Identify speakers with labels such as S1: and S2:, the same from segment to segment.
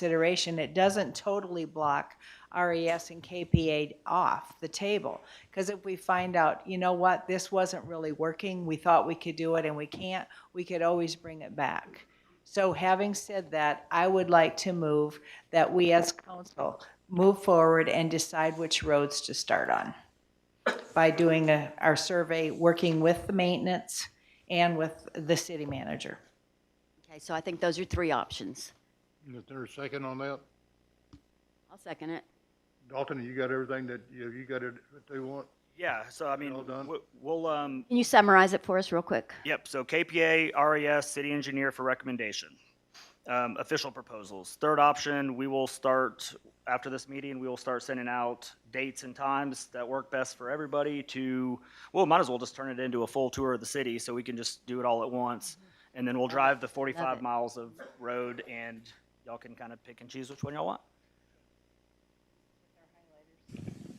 S1: consideration, it doesn't totally block RES and KPA off the table. Because if we find out, you know what, this wasn't really working, we thought we could do it and we can't, we could always bring it back. So having said that, I would like to move that we as council move forward and decide which roads to start on by doing a- our survey, working with the maintenance and with the city manager.
S2: Okay, so I think those are three options.
S3: Is there a second on that?
S2: I'll second it.
S3: Dalton, you got everything that, you, you got it, what they want?
S4: Yeah, so I mean,
S3: Well done.
S4: w- we'll, um,
S2: Can you summarize it for us real quick?
S4: yep, so KPA, RES, E city engineer for recommendation. Um, official proposals. Third option, we will start, after this meeting, we will start sending out dates and times that work best for everybody to, well, might as well just turn it into a full tour of the city so we can just do it all at once. And then we'll drive the
S2: Love
S4: forty-five
S2: it.
S4: miles of road and y'all can kind of pick and choose which one y'all want.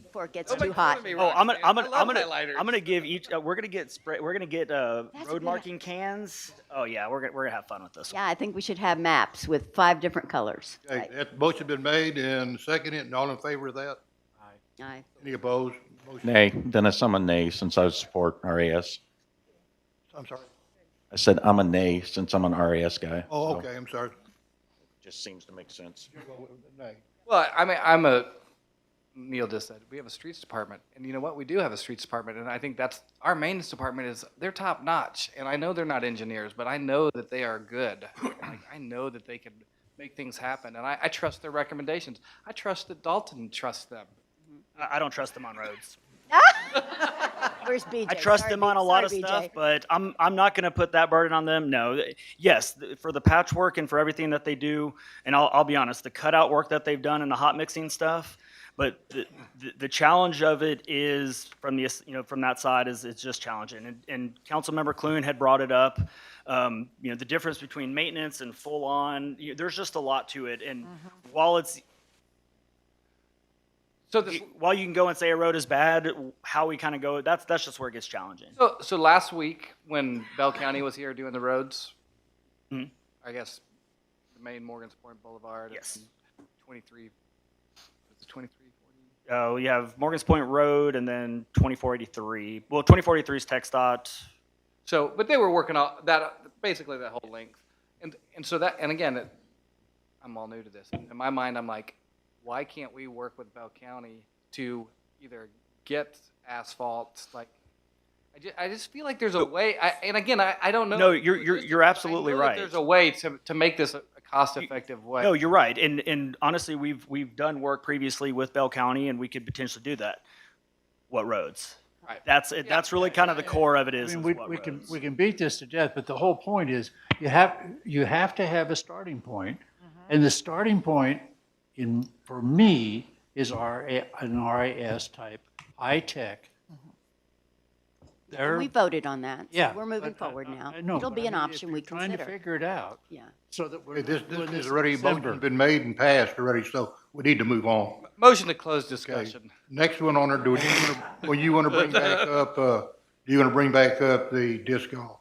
S2: Before it gets
S5: Don't make
S2: too
S5: fun
S2: hot.
S5: of me,
S4: Oh,
S5: Roxanne.
S4: I'm gonna, I'm gonna,
S5: I love
S4: I'm gonna,
S5: highlighters.
S4: I'm gonna give each. Uh, we're gonna get spray. We're gonna get uh,
S2: That's a
S4: road
S2: good
S4: marking cans. Oh yeah, we're gonna, we're gonna have fun with this.
S2: Yeah, I think we should have maps with five different colors.
S3: Okay,
S2: Right.
S3: that motion been made and seconded, and all in favor of that?
S2: Aye.
S3: Any opposed? Motion-
S6: Nay, then I am a nay since I support RAS.
S3: I'm sorry.
S6: I said I'm a nay since I'm an RAS guy.
S3: Oh,
S6: so
S3: okay, I'm sorry.
S6: Just seems to make sense.
S3: Nay.
S5: Well, I mean, I'm a, Neil just said, we have a streets department. And you know what? We do have a streets department. And I think that's, our maintenance department is, they're top notch. And I know they're not engineers, but I know that they are good. Like, I know that they can make things happen. And I, I trust their recommendations. I trust that Dalton trusts them.
S4: I, I don't trust them on roads.
S2: Where's BJ?
S4: I trust
S2: Sorry,
S4: them on a
S2: B-
S4: lot of
S2: sorry, BJ.
S4: stuff, but I'm I'm not gonna put that burden on them. No, Th- yes, th- for the patchwork and for everything that they do, and I'll I'll be honest, the cutout work that they've done and the hot mixing stuff. But the, the, the challenge of it is from the you know from that side is it's just challenging. And, and Councilmember Clune had brought it up. Um, you know the difference between maintenance and full on. You, there's just a lot to it. And
S2: Mm-hmm.
S4: while it's
S5: So this,
S4: while you can go and say a road is bad, how we kind of go that's that's just where it gets challenging.
S5: So, so last week when Bell County was here doing the roads,
S4: Mhm.
S5: I guess the main Morgan's Point Boulevard.
S4: Yes.
S5: And 23, it's 23, 40.
S4: Uh, we have Morgan's Point Road and then 2483. Well, 2483 is TxDOT.
S5: So, but they were working all that basically that whole length, and and so that and again, it, I'm all new to this. In my mind, I'm like, why can't we work with Bell County to either get asphalt? Like, I just, I just feel like there's a way. I, and again, I, I don't know.
S4: No, you're- you're- you're
S5: I
S4: absolutely
S5: know that
S4: right.
S5: There's a way to to make this a, a cost effective way.
S4: No, you're right. And and honestly, we've we've done work previously with Bell County, and we could potentially do that. What roads?
S5: Right.
S4: That's it. That's really kind of the core of it
S7: I
S4: is.
S7: mean,
S4: is
S7: we,
S4: what
S7: we can,
S4: roads.
S7: we can beat this to death, but the whole point is, you have, you have to have a starting point.
S2: Mm-hmm.
S7: And the starting point in, for me, is RA, an RAS type, high-tech.
S2: And
S7: They're,
S2: Mm-hmm. We voted on that. so
S7: yeah.
S2: We're moving
S7: but I-
S2: forward
S7: I-
S2: now.
S7: I know,
S2: It'll
S7: but
S2: be
S7: I
S2: an
S7: mean, if
S2: option we
S7: you're Trying to
S2: consider.
S7: figure it out,
S2: Yeah.
S7: so that we're
S3: Okay, this,
S7: not doing
S3: this
S7: this
S3: is
S7: in
S3: already,
S7: December.
S3: motion's been made and passed already, so we need to move on.
S5: Motion to close
S3: Okay,
S5: discussion.
S3: next one on there, do you, wanna- well, you wanna bring back up, uh, do you wanna bring back up the disc golf?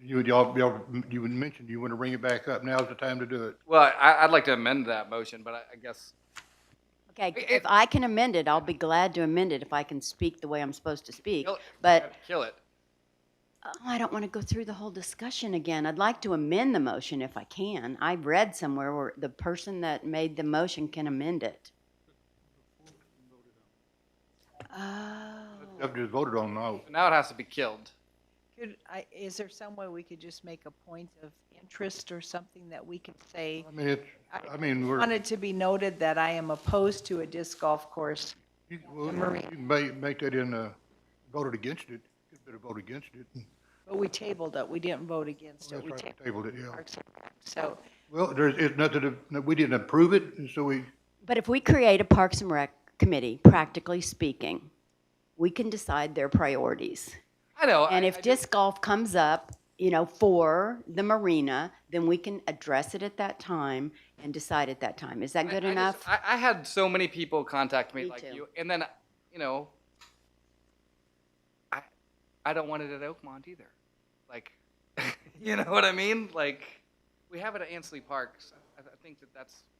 S3: You would, y'all, y'all, you would mention you wanna bring it back up, now's the time to do it.
S5: Well, I, I'd like to amend that motion, but I, I guess
S2: Okay,
S5: It-
S2: if I can amend it, I'll be glad to amend it if I can speak the way I'm supposed to speak.
S5: kill it.
S2: But
S5: kill it.
S2: Oh, I don't want to go through the whole discussion again. I'd like to amend the motion if I can. I read somewhere where the person that made the motion can amend it. Oh,
S3: Up to voted on now.
S5: Now it has to be killed.
S1: Could, I, is there some way we could just make a point of interest or something that we could say?
S3: I mean, it's, I mean,
S1: I
S3: we're,
S1: want it to be noted that I am opposed to a disc golf course.
S3: you well, you can ma- make that in, uh, voted against it, you better vote against it.
S1: But we tabled it, we didn't vote against it,
S3: That's
S1: we
S3: right,
S1: tabled
S3: tabled it, yeah.
S1: Parks and Rec. So,
S3: Well, there's, it's nothing, to- no, we didn't approve it, and so we,
S2: But if we create a Parks and Rec committee, practically speaking, we can decide their priorities.
S5: I know.
S2: And
S5: I-
S2: if
S5: I
S2: disc golf comes up, you know, for the marina, then we can address it at that time and decide at that time. Is that
S5: I-
S2: good
S5: I just-
S2: enough?
S5: I, I had so many people contact me,
S2: Me
S5: like
S2: too.
S5: you, and then you know, I I don't want it at Oakmont either. Like, you know what I mean? Like, we have it at Ansley Parks. I I think that that's